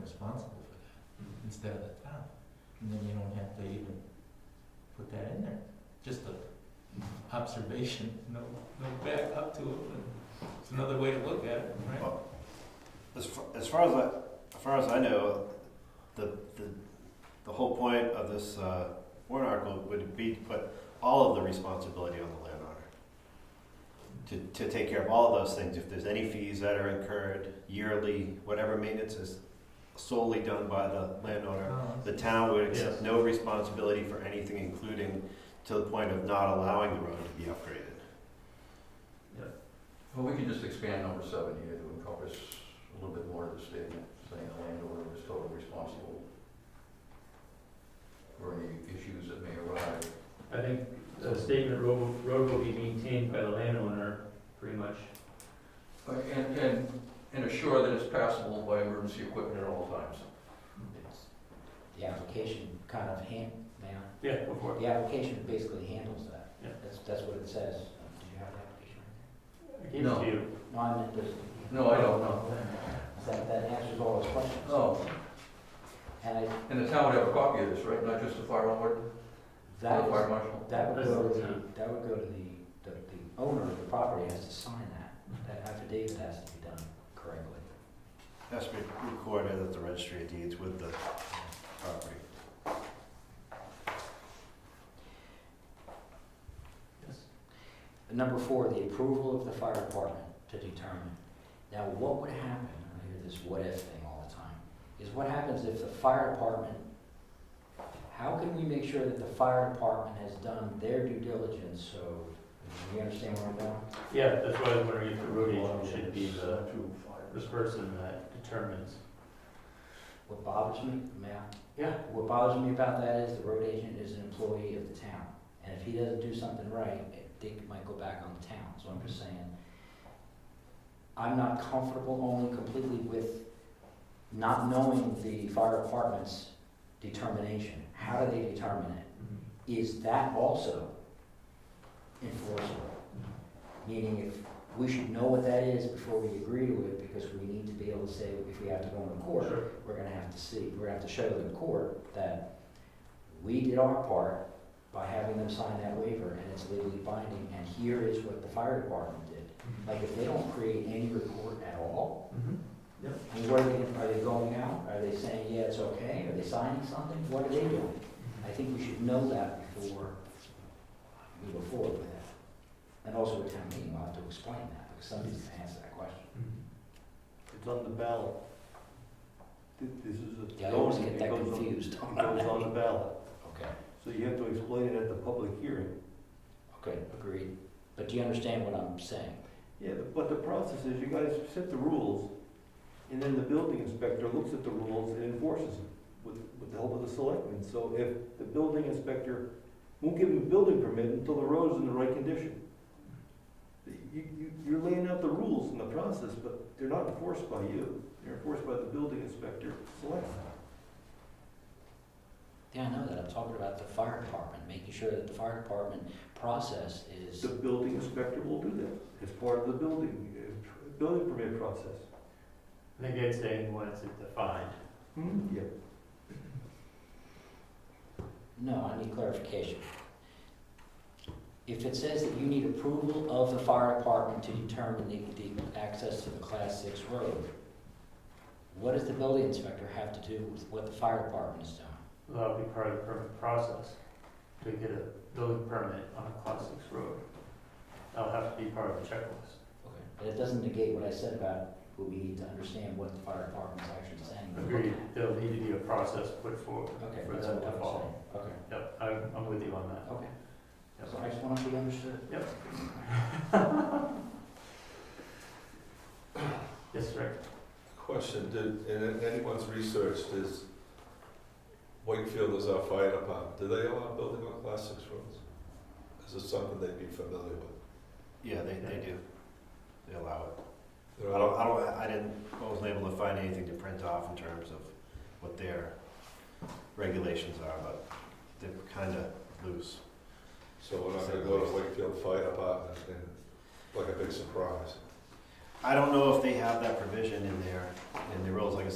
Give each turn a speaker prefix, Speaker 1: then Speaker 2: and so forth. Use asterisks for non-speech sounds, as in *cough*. Speaker 1: responsible for that, instead of the town. And then you don't have to even put that in there, just a observation, no, no back up to it, but it's another way to look at it, right?
Speaker 2: As far, as far as I, as far as I know, the, the, the whole point of this, uh, warrant article would be to put all of the responsibility on the landowner. To, to take care of all of those things, if there's any fees that are incurred yearly, whatever maintenance is solely done by the landowner.
Speaker 1: Um,
Speaker 2: The town would accept
Speaker 3: Yes.
Speaker 2: no responsibility for anything, including to the point of not allowing the road to be upgraded.
Speaker 4: Well, we can just expand number seven here to encompass a little bit more of the statement, saying the landowner is totally responsible for any issues that may arise.
Speaker 3: I think the statement, road, will- road will be maintained by the landowner, pretty much.
Speaker 4: Uh, And, and, and assure that it's passable by emergency equipment at all times.
Speaker 5: The application kind of hand, now,
Speaker 3: Yeah, before.
Speaker 5: the application basically handles that.
Speaker 3: Yeah.
Speaker 5: That's, that's what it says. Um, Did you have the application?
Speaker 3: I gave it
Speaker 4: No.
Speaker 3: to you.
Speaker 5: No, I meant this.
Speaker 4: No, I don't know.
Speaker 5: That, that answers all those questions.
Speaker 4: Oh,
Speaker 5: And I,
Speaker 4: and the town would have a copy of this, right? Not just the fire warden, the
Speaker 5: that
Speaker 4: fire
Speaker 5: is,
Speaker 4: marshal?
Speaker 5: that would
Speaker 3: That's
Speaker 5: go to
Speaker 3: the
Speaker 5: the,
Speaker 3: town.
Speaker 5: that would go to the, the, the owner of the property has to sign that. That affidavit has to be done correctly.
Speaker 2: Has to be recorded at the registry of deeds with the property.
Speaker 5: Number four, the approval of the fire department to determine. Now, what would happen, I hear this what if thing all the time, is what happens if the fire department, how can we make sure that the fire department has done their due diligence, so, you understand where I'm going?
Speaker 3: Yeah, that's why I was wondering if the road agent should be the, this person that determines.
Speaker 5: What bothers me, may I?
Speaker 3: Yeah.
Speaker 5: What bothers me about that is the road agent is an employee of the town, and if he doesn't do something right, it- they might go back on the town, so I'm just saying. I'm not comfortable only completely with not knowing the fire department's determination. How do they determine it?
Speaker 3: Mm-hmm.
Speaker 5: Is that also enforceable? Meaning if, we should know what that is before we agree to it, because we need to be able to say if we have to go into court
Speaker 3: Sure.
Speaker 5: we're gonna have to see, we're gonna have to show the court that we did our part by having them sign that waiver and it's legally binding, and here is what the fire department did. Like, if they don't create any report at all,
Speaker 3: Mhm.
Speaker 5: I mean, what are they, are they going out? Are they saying, yeah, it's okay? Are they signing something? What are they doing? I think we should know that before we go forward with it. And also at town meeting, we'll have to explain that, because somebody's gonna answer that
Speaker 3: Mm-hmm.
Speaker 5: question.
Speaker 6: It's on the ballot. Th- This is a.
Speaker 5: Yeah, I always get
Speaker 6: it
Speaker 5: that
Speaker 6: goes on-
Speaker 5: confused.
Speaker 6: It goes on the ballot,
Speaker 5: Okay.
Speaker 6: so you have to explain it at the public hearing.
Speaker 5: Okay, *laughs* agreed. But do you understand what I'm saying?
Speaker 6: Yeah, but- but the process is you guys set the rules, and then the building inspector looks at the rules and enforces them with, with the help of the selectmen. So if the building inspector won't give him a building permit until the road's in the right condition. You, you, you're laying out the rules in the process, but they're not enforced by you, they're enforced by the building inspector, selectmen.
Speaker 5: Yeah, I know that. I'm talking about the fire department, making sure that the fire department process is,
Speaker 6: The building inspector will do that, as part of the building, uh, building permit process.
Speaker 3: I think I'd say once it's defined. Hmm?
Speaker 6: Yeah.
Speaker 5: no, I need clarification. If it says that you need approval of the fire department to determine the, the access to the class six road, what does the building inspector have to do with what the fire department is doing?
Speaker 3: That'll uh, be part of the permit process to get a building permit on a class six road. That'll have to be part of the checklist.
Speaker 5: Okay. But it doesn't negate what I said about, what we need to understand what the fire department's actually saying.
Speaker 3: Agreed, there'll need to be a process put forward.
Speaker 5: Okay,
Speaker 3: For
Speaker 5: that's
Speaker 3: them
Speaker 5: what
Speaker 3: to
Speaker 5: I'm saying.
Speaker 3: follow.
Speaker 5: Okay,
Speaker 3: Yep, I'm, I'm with you on that.
Speaker 5: okay.
Speaker 3: Yep.
Speaker 5: So I just want to be understood.
Speaker 3: Yes, Rick?
Speaker 7: Question, did, in anyone's research, does Wakefield is our fire department, do they allow building on class six roads? Is this something they'd be familiar with?
Speaker 2: Yeah, they, they do. They allow it.
Speaker 7: They're
Speaker 2: I don't, I don't, I didn't, I wasn't able to find anything to print off in terms of what their regulations are, but they're kinda loose.
Speaker 7: So we're not gonna go to Wakefield Fire Department and, like a big surprise.
Speaker 2: I don't know if they have that provision in their, in their rules, like I